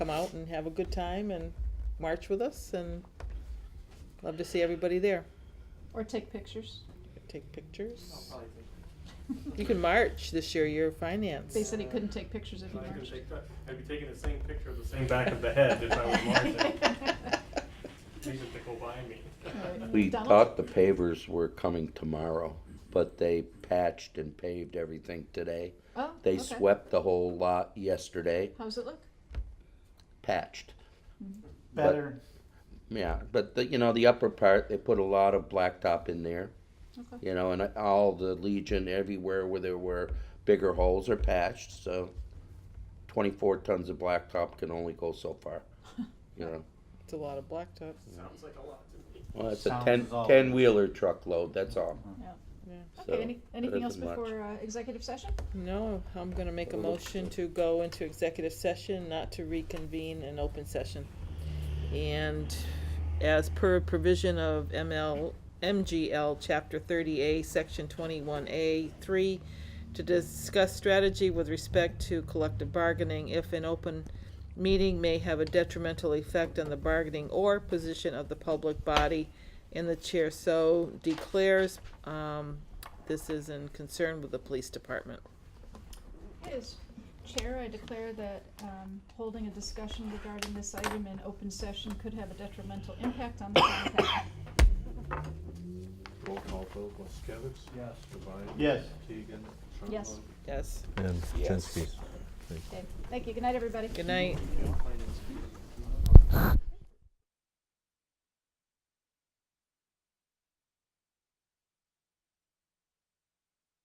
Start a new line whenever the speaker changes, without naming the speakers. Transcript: out and have a good time and march with us and love to see everybody there.
Or take pictures.
Take pictures.
probably take
You can march this year, you're finance.
They said he couldn't take pictures if he
I could
marched.
take that. I'd be taking the same picture of the same back of the head if I was marching. These are to go by me.
Right.
We
Donald?
thought the pavers were coming tomorrow, but they patched and paved everything today.
Oh,
They
okay.
swept the whole lot yesterday,
How's it look?
patched. But-
Better.
Yeah, but the, you know, the upper part, they put a lot of blacktop in there,
Okay.
you know, and all the Legion, everywhere where there were bigger holes are patched, so twenty-four tons of blacktop can only go so far, you know.
It's a lot of blacktop.
Sounds like a lot to me.
Well, it's a
Sounds
ten,
is all.
ten-wheeler truckload, that's all. So,
Okay, any, anything
doesn't
else
much.
before uh, executive session?
No, I'm gonna make a motion to go into executive session, not to reconvene an open session. And as per provision of ML, MGL, Chapter thirty A, Section twenty-one A, three, to discuss strategy with respect to collective bargaining if an open meeting may have a detrimental effect on the bargaining or position of the public body and the chair so declares, um, this is in concern with the police department.
Yes. Chair, I declare that um, holding a discussion regarding this item in open session could have a detrimental impact on the public health.
Roll call vote, Moskowitz.
Yes.
Devine.
Yes.
Keegan.
Yes.
Yes.
And
Yes.
Jansky.
Okay. Thank you. Good night, everybody.
Good night.
Trumbull.